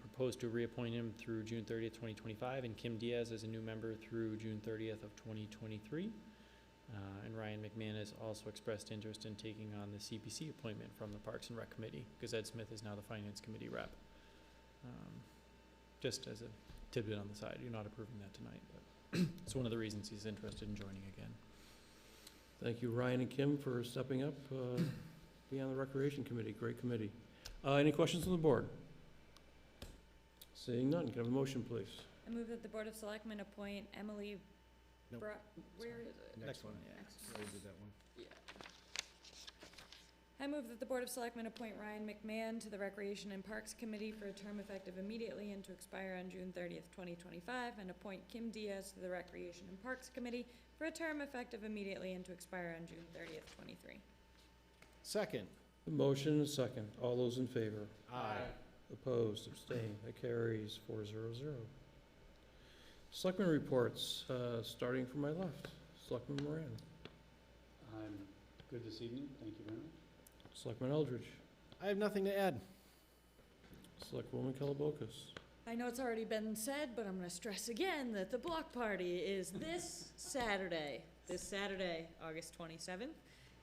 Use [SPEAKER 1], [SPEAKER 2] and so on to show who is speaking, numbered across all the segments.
[SPEAKER 1] proposed to reappoint him through June thirtieth, twenty twenty-five, and Kim Diaz as a new member through June thirtieth of twenty twenty-three. Uh, and Ryan McMahon has also expressed interest in taking on the CPC appointment from the Parks and Rec Committee, because Ed Smith is now the Finance Committee rep. Um, Just as a tidbit on the side, you're not approving that tonight, but it's one of the reasons he's interested in joining again.
[SPEAKER 2] Thank you, Ryan and Kim, for stepping up, uh, being on the Recreation Committee, great committee. Uh, Any questions on the board? Seeing none, can I have a motion, please?
[SPEAKER 3] I move that the Board of Selectmen appoint Emily
[SPEAKER 4] Nope.
[SPEAKER 3] Bra- where is it?
[SPEAKER 4] Next one.
[SPEAKER 3] Next.
[SPEAKER 4] I did that one.
[SPEAKER 3] I move that the Board of Selectmen appoint Ryan McMahon to the Recreation and Parks Committee for a term effective immediately and to expire on June thirtieth, twenty twenty-five, and appoint Kim Diaz to the Recreation and Parks Committee for a term effective immediately and to expire on June thirtieth, twenty-three.
[SPEAKER 4] Second.
[SPEAKER 2] A motion and a second. All those in favor?
[SPEAKER 4] Aye.
[SPEAKER 2] Opposed, abstained, that carries four zero zero. Selectmen reports, uh, starting from my left. Selectman Moran,
[SPEAKER 5] I'm good this evening, thank you very much.
[SPEAKER 2] Selectman Eldridge,
[SPEAKER 4] I have nothing to add.
[SPEAKER 2] Selectwoman Kellabokas.
[SPEAKER 3] I know it's already been said, but I'm gonna stress again that the block party is this Saturday, this Saturday, August twenty-seventh.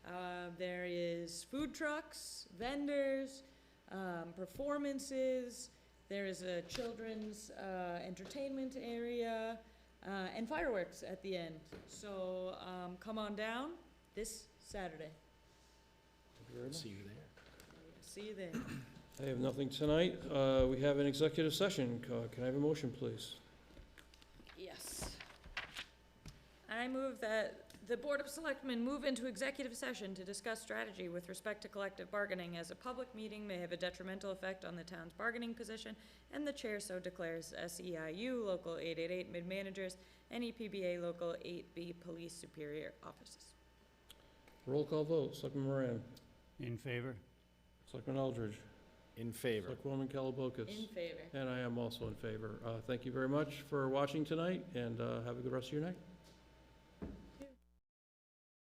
[SPEAKER 3] Uh, there is food trucks, vendors, um, performances, there is a children's, uh, entertainment area, uh, and fireworks at the end. So, um, come on down this Saturday.
[SPEAKER 2] Thank you very much.
[SPEAKER 4] See you there.
[SPEAKER 3] See you there.
[SPEAKER 2] I have nothing tonight. Uh, We have an executive session. Uh, Can I have a motion, please?
[SPEAKER 3] Yes. I move that the Board of Selectmen move into executive session to discuss strategy with respect to collective bargaining as a public meeting may have a detrimental effect on the town's bargaining position, and the chair so declares SEIU Local 888 Mid-Managers and E EPBA Local 8B Police Superior Officers.
[SPEAKER 2] Roll call vote. Selectman Moran,
[SPEAKER 5] In favor?
[SPEAKER 2] Selectman Eldridge,
[SPEAKER 4] In favor.
[SPEAKER 2] Selectwoman Kellabokas.
[SPEAKER 3] favor.
[SPEAKER 2] And I am also in favor. Uh, Thank you very much for watching tonight, and uh, have a good rest of your night.